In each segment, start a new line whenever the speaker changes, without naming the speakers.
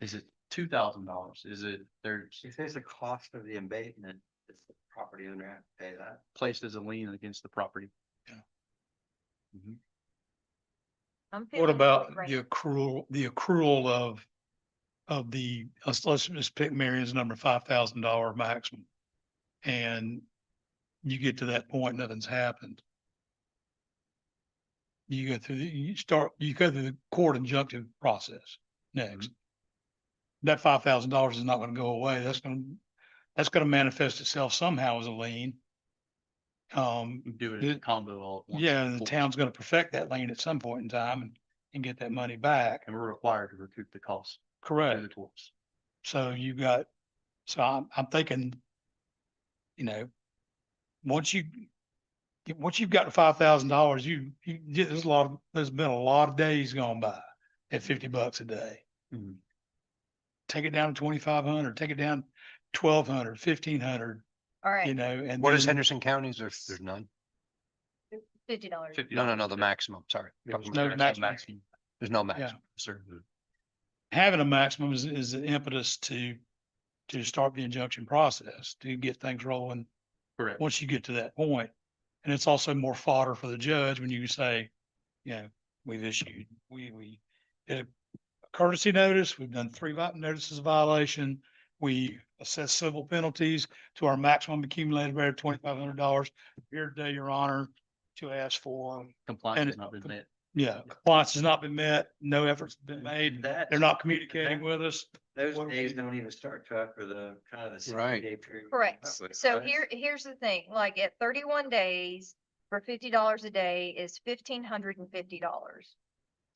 Is it two thousand dollars? Is it there's
She says the cost of the abatement, does the property owner have to pay that?
placed as a lien against the property?
I'm feeling
What
really
about
great.
the accrual, the accrual of, of the, let's, let's just pick Marion's number, five thousand dollar maximum. And you get to that point, nothing's happened. You go through, the you start, you go through the court injunctive process next. That five thousand dollars is not gonna go away. That's gonna, that's gonna manifest itself somehow as a lien. Um,
You Do it in
The-
combo all at once.
yeah, the
Cool.
town's gonna perfect that lane at some point in time and, and get that money back.
And we're required to recoup the cost through the
Correct.
courts.
So you got, so I'm, I'm thinking, you know, once you, get- once you've got the five thousand dollars, you, you, get- there's a lot, of- there's been a lot of days gone by at fifty bucks a day.
Mm-hmm.
Mhm.
Take it down to twenty-five hundred, take it down twelve hundred, fifteen hundred,
All
you
right,
know, and.
What is
then
Henderson County's? There's, there's none.
fifty dollars.
Fifty
No, no, no,
dollars,
the
yeah.
maximum, sorry.
Yeah,
Talking
no
about
That's
maximum.
the maximum.
There's no
Yeah.
maximum, sir.
Having a maximum is, is the impetus to, to start the injunction process, to get things rolling
Correct.
once you get to that point. And it's also more fodder for the judge when you say, you know, we've issued, we, we did a courtesy notice, we've done three vi- notices of violation. We assess civil penalties to our maximum accumulated rate of twenty-five hundred dollars. Here today, your honor, to ask for,
Compliance
and
has
it-
not been met.
yeah, compliance has not been met, no efforts have been made.
That-
They're not communicating with us.
Those
what do
days
we-
don't even start to after the kind of the sixty
Right.
day period.
Correct.
Right.
So here, here's the thing, like at thirty-one days, for fifty dollars a day is fifteen hundred and fifty dollars.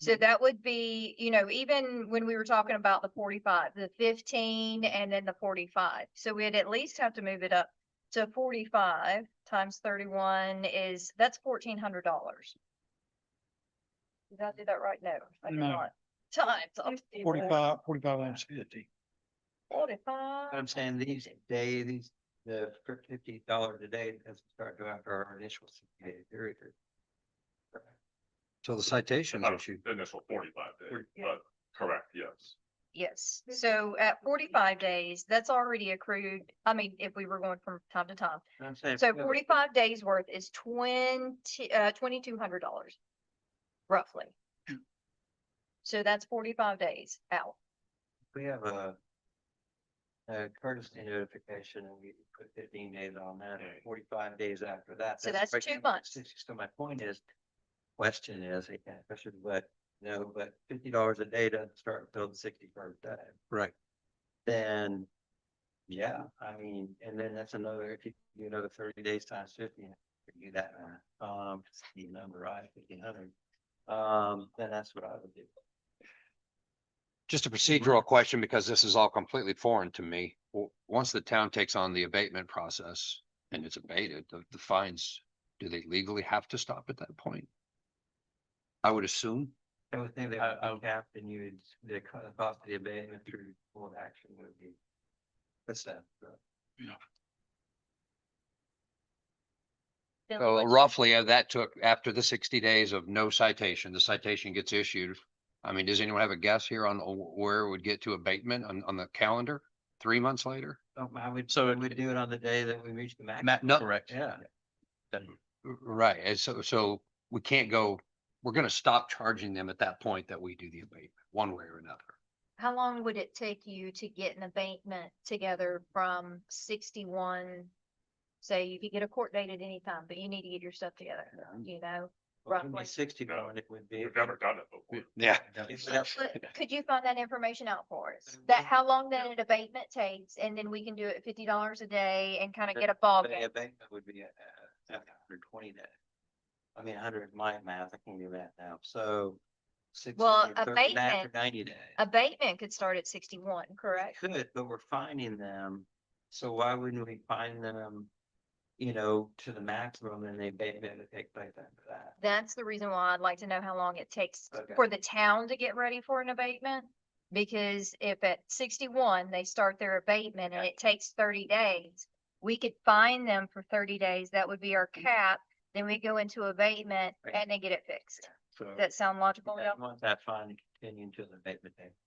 Hmm.
So that would be, you know, even when we were talking about the forty-five, the fifteen and then the forty-five. So we'd at least have to move it up to forty-five times thirty-one is, that's fourteen hundred dollars. Did I do that right? No, I did
No.
not. Times.
Forty-five, forty-five times fifty.
Forty-five.
But I'm saying these day, these, the fif- fifty dollars a day doesn't start to after our initial sixty day period.
So the citations
Oh.
About
issue.
the Initial forty-five days,
Yeah.
but correct, yes.
Yes, so at forty-five days, that's already accrued, I mean, if we were going from time to time.
I'm saying.
So forty-five days worth is twenty, uh, twenty-two hundred dollars, roughly. So that's forty-five days out.
We have a. A courtesy notification and we put fifteen days on that, and
Okay.
forty-five days after that.
So that's
breaking
two
up the
months.
60. So my point is, question is, I can't question, but no, but fifty dollars a day doesn't start until the sixty first day.
Right.
Then, yeah, I mean, and then that's another, if you do another thirty days times fifty, if you do that, math, um, the number, right, fifteen hundred. Um, then that's what I would do.
Just a procedural question because this is all completely foreign to me. W- Once the town takes on the abatement process and it's abated, the, the fines, do they legally have to stop at that point? I would assume.
I would think they
I-
would
I
be
would-
capped and you'd, the co- the cost of the abatement through full action would be. That's that.
Then
So
let's-
roughly, uh, that took after the sixty days of no citation, the citation gets issued. I mean, does anyone have a guess here on uh, wh- where it would get to abatement on, on the calendar? Three months later?
Um, I would,
So
so
it-
we'd do it on the day that we reach the max.
Ma-
no-
correct.
Yeah.
R- Right, and so, so we can't go, we're gonna stop charging them at that point that we do the abatement, one way or another.
How long would it take you to get an abatement together from sixty-one? Say, you could get a court date at any time, but you need to get your stuff together, you know?
Well, it'd be
roughly.
Sixty-one it would be.
We've never done it before.
Yeah.
If that's-
But could you find that information out for us?
Uh,
That
well,
how long that an abatement takes and then we can do it at fifty dollars a day and kind of
That-
get a ball
but The
game.
abatement would be uh, uh, hundred twenty days. I mean, hundred, my math, I can't do that now, so. 60
Well,
or 30 and after
abatement-
Ninety days.
Abatement could start at sixty-one,
They
correct?
Could, but we're finding them, so why wouldn't we find them, you know, to the maximum and the abatement would take place after that?
That's the reason why I'd like to know how long it takes
Okay.
for the town to get ready for an abatement. Because if at sixty-one, they start their abatement and it takes thirty days, we could fine them for thirty days. That would be our cap. Then we go into abatement
Mm. Right.
and they get it fixed.
So.
Does that sound logical?
I
y'all?
want that fine to continue until the abatement date.